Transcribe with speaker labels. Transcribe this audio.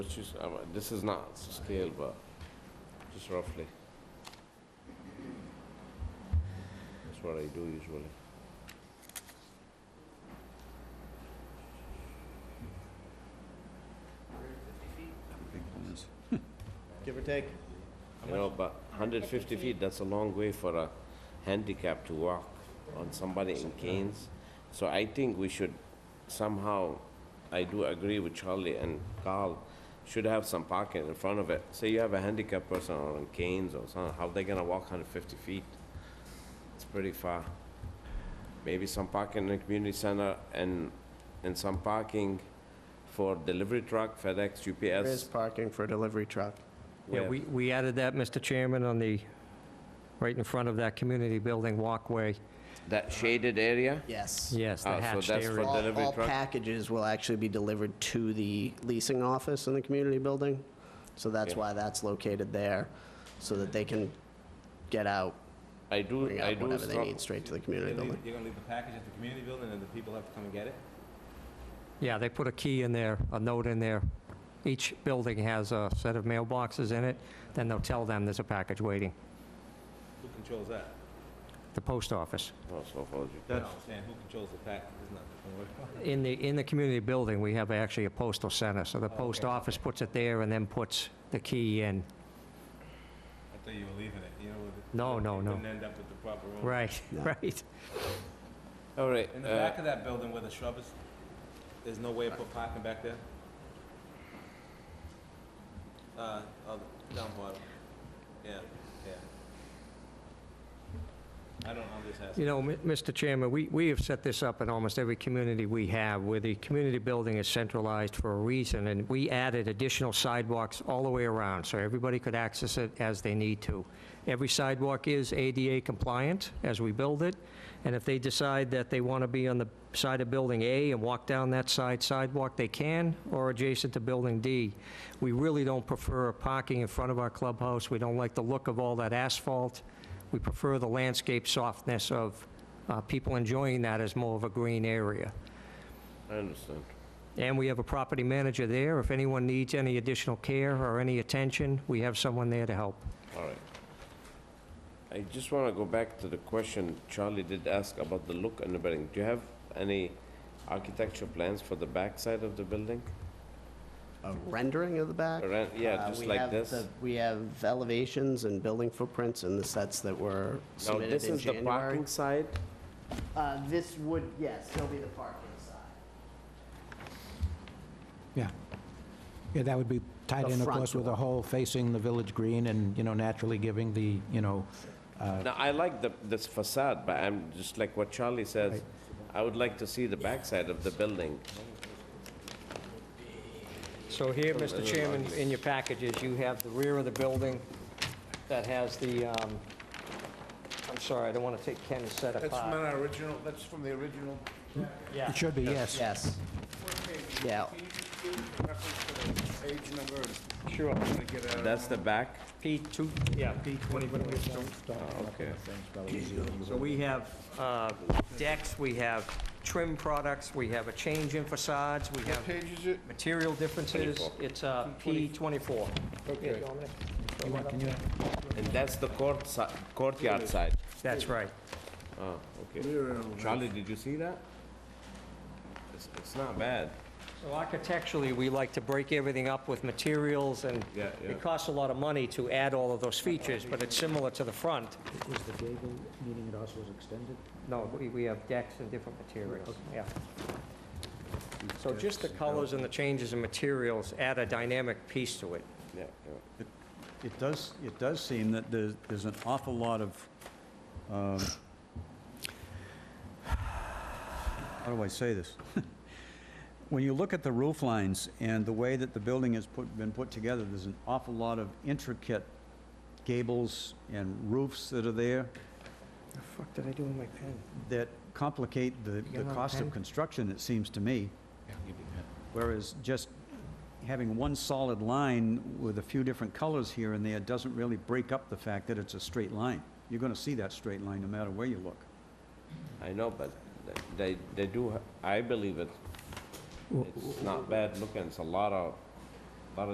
Speaker 1: Which is, uh, this is not scale, but just roughly. That's what I do usually.
Speaker 2: Big ones.
Speaker 3: Give or take.
Speaker 1: You know, but 150 feet, that's a long way for a handicap to walk on somebody in canes. So I think we should somehow, I do agree with Charlie and Carl, should have some parking in front of it. Say you have a handicapped person on canes or something, how they gonna walk 150 feet? It's pretty far. Maybe some parking in the community center and, and some parking for delivery truck, FedEx,
Speaker 3: There
Speaker 1: UPS.
Speaker 3: is parking for a delivery truck.
Speaker 4: Yeah,
Speaker 1: where-
Speaker 4: we, we added that, Mr. Chairman, on the, right in front of that community building walkway. Uh,
Speaker 1: That shaded area?
Speaker 3: Yes.
Speaker 4: Yes, the
Speaker 1: Ah, so
Speaker 4: hatched
Speaker 1: that's for
Speaker 4: area.
Speaker 1: the-
Speaker 3: All,
Speaker 1: delivery
Speaker 3: all
Speaker 1: truck?
Speaker 3: packages will actually be delivered to the leasing office in the community building. So that's
Speaker 1: Yeah.
Speaker 3: why that's located there, so that they can get out,
Speaker 1: I do,
Speaker 3: bring
Speaker 1: I
Speaker 3: out
Speaker 1: do.
Speaker 3: whatever they
Speaker 1: strong-
Speaker 3: need straight to the community
Speaker 5: You're gonna
Speaker 3: building.
Speaker 5: leave- you're gonna leave the package at the community building and the people have to come and get it?
Speaker 4: Yeah, they put a key in there, a note in there. Each building has a set of mailboxes in it, then they'll tell them there's a package waiting,
Speaker 5: Who controls that?
Speaker 4: the post office.
Speaker 1: Oh, so hold you.
Speaker 5: That's. I'm saying, who controls the package? It's not, don't worry about it.
Speaker 4: In the, in the community building, we have actually a postal center, so the post office puts it there and then puts the key in.
Speaker 5: I thought you were leaving it, you know? with it-
Speaker 4: No,
Speaker 5: you
Speaker 4: no, no.
Speaker 5: Wouldn't end up with the proper room.
Speaker 4: Right,
Speaker 3: Yeah.
Speaker 4: right.
Speaker 1: All right,
Speaker 5: In the
Speaker 1: uh,
Speaker 5: back of that building where the shrub is, there's no way to put parking back there? Uh, oh, down bottom. Yeah, yeah. I don't, I'm just asking.
Speaker 4: You know, M- Mr. Chairman, we, we have set this up in almost every community we have, where the community building is centralized for a reason, and we added additional sidewalks all the way around, so everybody could access it as they need to. Every sidewalk is ADA compliant as we build it, and if they decide that they want to be on the side of Building A and walk down that side sidewalk, they can, or adjacent to Building D. We really don't prefer parking in front of our clubhouse, we don't like the look of all that asphalt. We prefer the landscape softness of uh, people enjoying that as more of a green area.
Speaker 1: uh, I understand.
Speaker 4: And we have a property manager there. If anyone needs any additional care or any attention, we have someone there to help.
Speaker 1: All right. I just want to go back to the question Charlie did ask about the look and the building. Do you have any architecture plans for the back side of the building?
Speaker 3: A rendering of the back?
Speaker 1: Around, yeah,
Speaker 3: Uh,
Speaker 1: just
Speaker 3: we
Speaker 1: like
Speaker 3: have
Speaker 1: this.
Speaker 3: the- We have elevations and building footprints in the sets that were
Speaker 1: Now,
Speaker 3: submitted
Speaker 1: this
Speaker 3: in
Speaker 1: is the
Speaker 3: January.
Speaker 1: parking side?
Speaker 3: Uh, this would, yes, still be the parking side.
Speaker 6: Yeah. Yeah, that would be tied
Speaker 3: The
Speaker 6: in, of
Speaker 3: front
Speaker 6: course, with
Speaker 3: door.
Speaker 6: the whole facing the village green and, you know, naturally giving the, you know,
Speaker 5: Uh,
Speaker 1: Now, I like the, this facade, but I'm, just like what Charlie says, I would like to see the back side of the building.
Speaker 4: So here, Mr. Chairman, in your packages, you have the rear of the building that has the, um, I'm sorry, I don't want to take Ken's set apart.
Speaker 7: That's from our original, that's from the original.
Speaker 4: Yeah.
Speaker 6: it should be, yes.
Speaker 3: Yes. Yeah,
Speaker 7: Can you just give reference to the page number?
Speaker 4: Sure.
Speaker 7: I'm gonna get out of-
Speaker 1: That's the back?
Speaker 4: P2, yeah, P20.
Speaker 1: Ah, Okay.
Speaker 4: So we have uh, decks, we have trim products, we have a change in facades, we have
Speaker 7: Page is it?
Speaker 4: material differences. It's uh, P24.
Speaker 7: Okay.
Speaker 1: And that's the court si, courtyard side?
Speaker 4: That's right.
Speaker 1: Oh, okay. Charlie, did you see that? It's, it's not bad.
Speaker 4: So architecturally, we like to break everything up with materials, and
Speaker 1: Yeah, yeah.
Speaker 4: it costs a lot of money to add all of those features, but it's similar to the front.
Speaker 6: Was the gable meaning it also was extended?
Speaker 4: No, we, we have decks and different materials, yeah. So just the colors and the changes in materials add a dynamic piece to it.
Speaker 1: Yeah, yeah.
Speaker 8: It does, it does seem that there's, there's an awful lot of, um, how do I say this? When you look at the roof lines and the way that the building has put, been put together, there's an awful lot of intricate gables and roofs that are there
Speaker 4: The fuck did I do with my pen?
Speaker 8: that complicate the,
Speaker 4: got
Speaker 8: the
Speaker 4: another
Speaker 8: cost
Speaker 4: pen?
Speaker 8: of construction, it seems to me. Whereas just having one solid line with a few different colors here and there doesn't really break up the fact that it's a straight line. You're gonna see that straight line no matter where you look.
Speaker 1: I know, but th- they, they do, ha- I believe it. It's not bad looking, it's a lot of